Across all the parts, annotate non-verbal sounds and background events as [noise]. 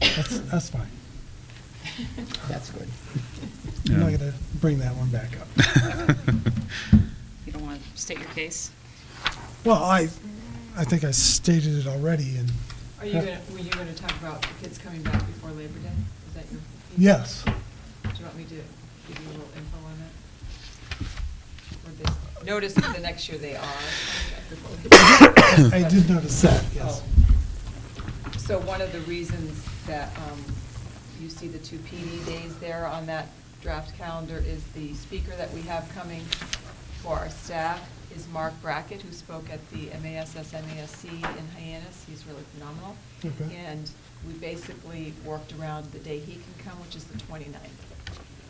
That's, that's fine. [laughs] That's good. I'm not Yeah. gonna bring that one back up. [laughs] You don't want to state your case? Well, I, I think I stated it already, and Are you gonna, were you gonna talk about the kids coming back before Labor Day? Is that your? [coughs] yes, Do you want me to give you a little info on that? Or this- Notice that the next year they are. coming [laughs] back before Labor Day. I did notice that, yes. Oh. So one of the reasons that um, you see the two PD days there on that draft calendar is the speaker that we have coming for our staff is Mark Brackett, who spoke at the MASSS MASC in Hyannis. He's really phenomenal. Okay. And we basically worked around the day he can come, which is the 29th.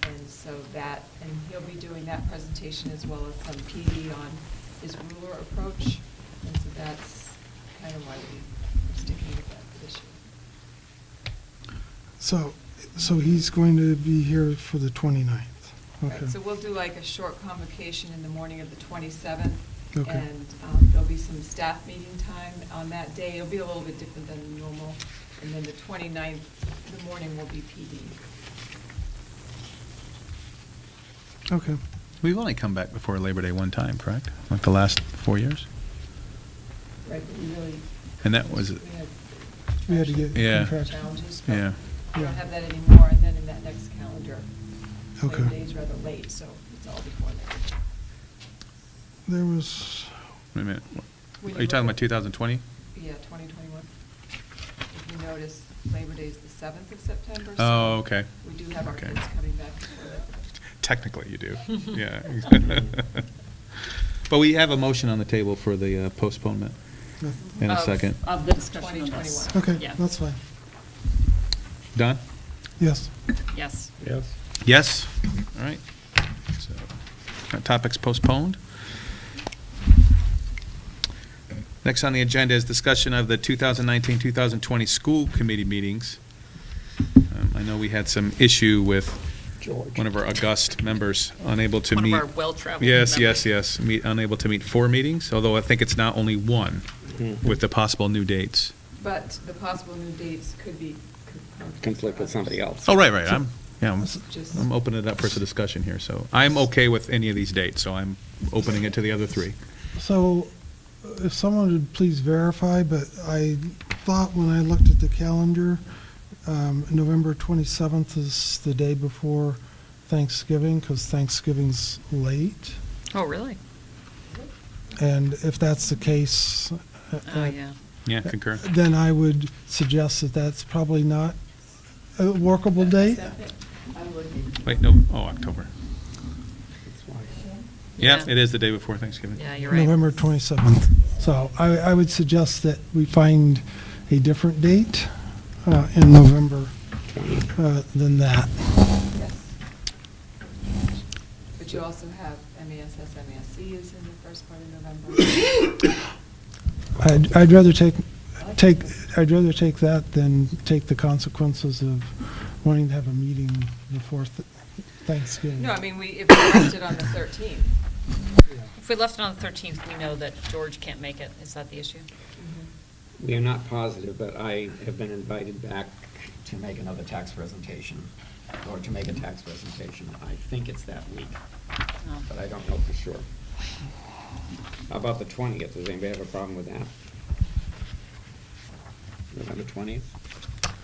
And so that, and he'll be doing that presentation as well as some PD on his ruler approach. And so that's kind of why we're sticking with that for this year. So, so he's going to be here for the 29th. Okay. Right, So we'll do like a short convocation in the morning of the 27th. Okay. And um, there'll be some staff meeting time on that day. It'll be a little bit different than normal. And then the 29th, the morning will be E. PD. Okay, [laughs] We've only come back before Labor Day one time, correct? Like the last four years? Right, but we really. And that was, we had we had to get. Yeah. contractual. Challenges. but yeah. We Yeah. don't have that anymore, and then in that next calendar, Labor Okay. Day's rather late, so it's all before that. There was, Wait a minute. When Are you talking look about at- 2020? Yeah, 2021. If you notice, Labor Day's the 7th of September. so Oh, okay. We do have our Okay. kids coming back before that. Technically, [laughs] you do. Yeah. [laughs] But we have a motion on the table for the uh, postponement. no. In a Of- second. Of the discussion on this. 2021. okay, Yeah. that's fine. Don? Yes, Yes. Yes. Yes. All right. So, That topic's postponed. Next on the agenda is discussion of the 2019-2020 school committee meetings. Um, I know we had some issue with George. one of our august members unable to One of meet. our well-traveled Yes, yes, members. yes, meet- unable to meet four meetings, although I think it's now only one Mhm. with the possible new dates. But the possible new dates could be. con- Conflict with somebody else. Oh, right, right, I'm, yeah, I'm- Just- I'm opening it up for some discussion here, so I'm okay with any of these dates, so I'm opening it to the other three. so uh, if someone would please verify, but I thought when I looked at the calendar, um, November 27th is the day before Thanksgiving, because Thanksgiving's late. Oh, really? And if that's the case, uh, Oh, yeah. Yeah, concur. then I would suggest that that's probably not a workable date. I'm looking. Wait, no, oh, October. That's why. Yeah, Yeah. it is the day before Thanksgiving. Yeah, you're right. November 27th. So I, I would suggest that we find a different date uh, in November uh, than that. Yes. But you also have MASSS, MASC is in the first part of November. I'd, I'd rather take, take, I'd rather take that than take the consequences of wanting to have a meeting before th- Thanksgiving. No, I mean, we, if we left it on the 13th. If we left it on the 13th, we know that George can't make it. Is that the issue? We are not positive, but I have been invited back to make another tax presentation, or to make a tax presentation. I think it's that week, No. but I don't know for sure. How about the 20th? Does anybody have a problem with that? November 20th?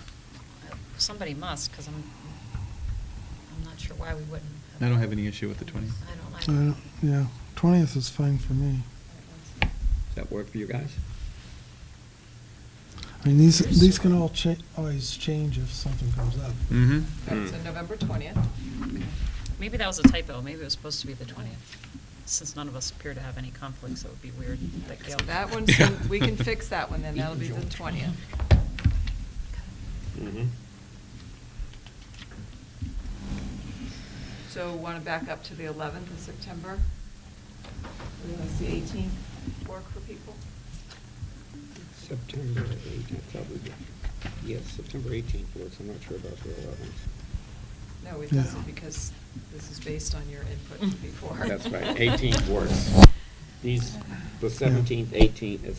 Somebody must, because I'm, I'm not sure why we wouldn't. I don't have any issue with the 20th. I I don't like don't- Uh, Yeah, 20th is fine for me. Does that work for you guys? I mean, these, these can all cha, always change if something comes up. Mm-hmm. All right, So Hmm. November 20th. Maybe that was a typo. Maybe it was supposed to be the 20th. Since none of us appear to have any conflicts, it would be weird that So Gail. that [laughs] one, Yeah. we can fix that one, then that'll be the 20th. Mm-hmm. So want to back up to the 11th of September? Is the 18th work for people? September 18th, probably. Yes, September 18th works. I'm not sure about the 11th. No, it Yeah. doesn't, because this is based on your input from before. [laughs] That's right, 18th works. These, the 17th, 18th, it's